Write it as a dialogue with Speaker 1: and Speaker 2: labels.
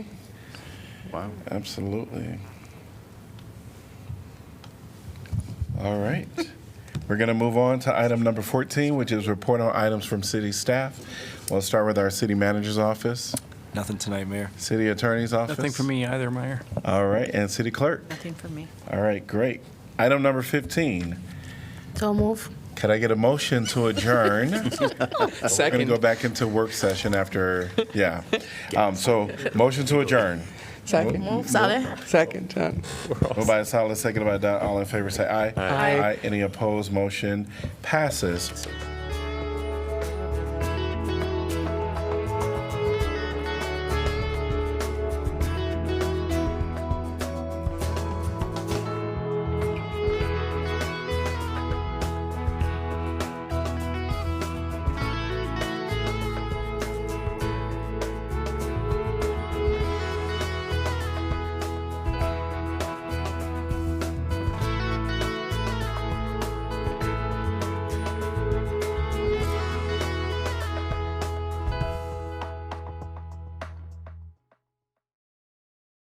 Speaker 1: Wow.
Speaker 2: Absolutely. All right. We're going to move on to item number 14, which is report on items from city staff. We'll start with our city manager's office,
Speaker 3: Nothing tonight, Mayor.
Speaker 2: city attorney's office.
Speaker 4: Nothing for me either, Mayor.
Speaker 2: All right, and city clerk.
Speaker 5: Nothing for me.
Speaker 2: All right, great. Item number 15.
Speaker 5: So move.
Speaker 2: Could I get a motion to adjourn? We're going to go back into work session after, yeah. Um, So, motion to adjourn.
Speaker 6: Second,
Speaker 5: Move, Saleh.
Speaker 6: second time.
Speaker 2: Moved by Salas, seconded by Don. All in favor, say aye. Aye. Any opposed? Motion passes.